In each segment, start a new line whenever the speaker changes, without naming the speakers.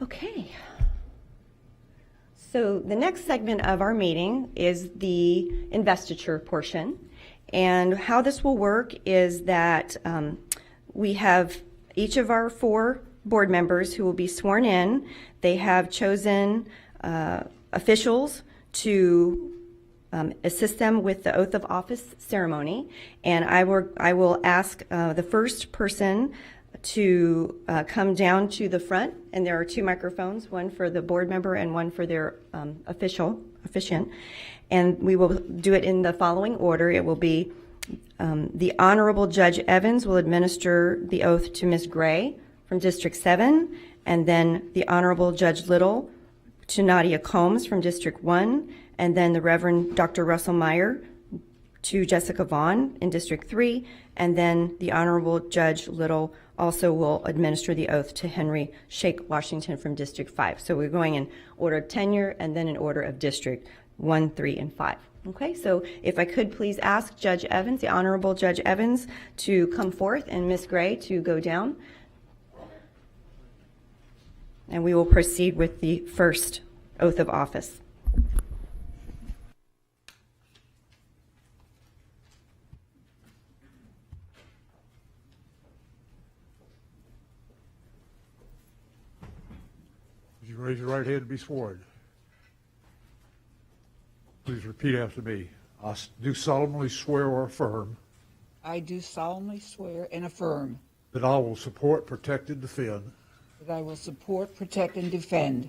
Okay. So the next segment of our meeting is the investiture portion. And how this will work is that um, we have each of our four board members who will be sworn in. They have chosen uh, officials to um, assist them with the oath of office ceremony. And I will, I will ask uh, the first person to uh, come down to the front, and there are two microphones, one for the board member and one for their um, official, officiant. And we will do it in the following order. It will be um, the Honorable Judge Evans will administer the oath to Ms. Gray from District 7, and then the Honorable Judge Little to Nadia Combs from District 1, and then the Reverend Dr. Russell Meyer to Jessica Vaughn in District 3, and then the Honorable Judge Little also will administer the oath to Henry Shake Washington from District 5. So we're going in order of tenure and then in order of District 1, 3, and 5. Okay, so if I could please ask Judge Evans, the Honorable Judge Evans, to come forth and Miss Gray to go down. And we will proceed with the first oath of office.
Would you raise your right hand to be sworn? Please repeat after me. I s- do solemnly swear or affirm
I do solemnly swear and affirm
that I will support, protect, and defend
that I will support, protect, and defend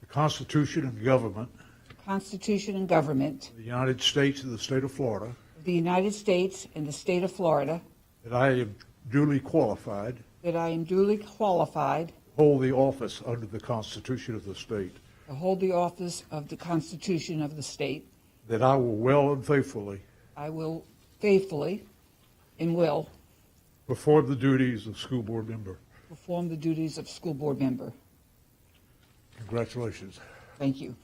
the Constitution and government
the Constitution and government
of the United States and the state of Florida,
of the United States and the state of Florida,
that I am duly qualified to
that I am duly qualified
hold the office under the Constitution of the state,
to hold the office of the Constitution of the state.
that I will well and faithfully
I will faithfully and will
perform the duties of school board member.
perform the duties of school board member.
Congratulations.
Thank you.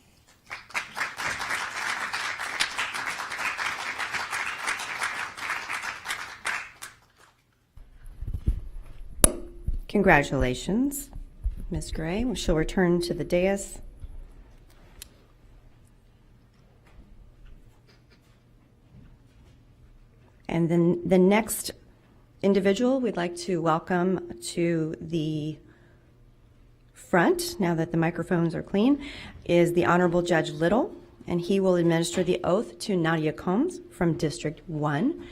Congratulations, Ms. Gray. She'll return to the dais. And then the next individual we'd like to welcome to the front, now that the microphones are clean, is the Honorable Judge Little, and he will administer the oath to Nadia Combs from District 1.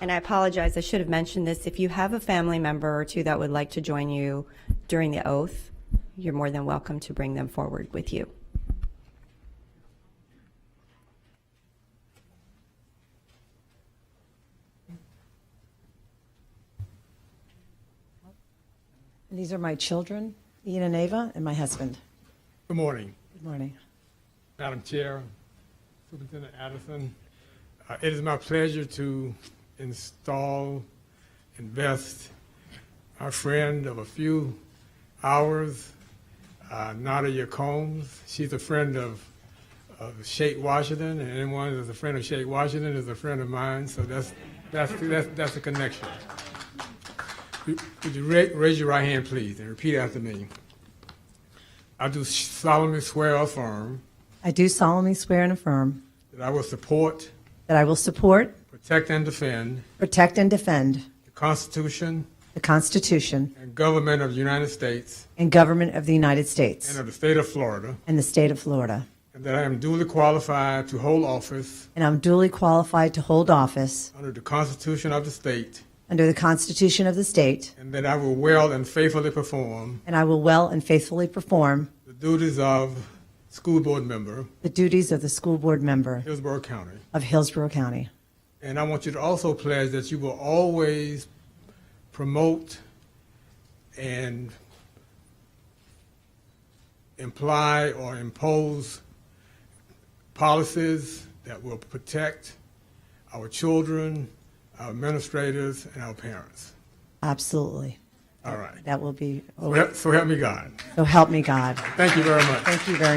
And I apologize, I should have mentioned this. If you have a family member or two that would like to join you during the oath, you're more than welcome to bring them forward with you.
And these are my children, Ian and Ava, and my husband.
Good morning,
Good morning.
Madam Chair, Superintendent Addison. Uh, It is my pleasure to install, invest our friend of a few hours, uh, Nadia Combs. She's a friend of of Shake Washington, and anyone that's a friend of Shake Washington is a friend of mine, so that's, that's, that's that's a connection. Would would you ra- raise your right hand, please, and repeat after me? I do solemnly swear or affirm
I do solemnly swear and affirm
That I will support,
that I will support,
protect, and defend
protect, and defend
the Constitution
the Constitution
and government of the United States
and government of the United
and
States
of the state of Florida,
and the state of Florida.
and that I am duly qualified to hold office
And I'm duly qualified to hold office
under the Constitution of the state,
under the Constitution of the state,
and that I will well and faithfully perform
and I will well and faithfully perform
the duties of school board member,
the duties of the school board member
Hillsborough County.
of Hillsborough County.
And I want you to also pledge that you will always promote and imply or impose policies that will protect our children, our administrators, and our parents.
Absolutely.
All right.
That will be,
So help- So help me God.
so help me God.
Thank you very much.
Thank you very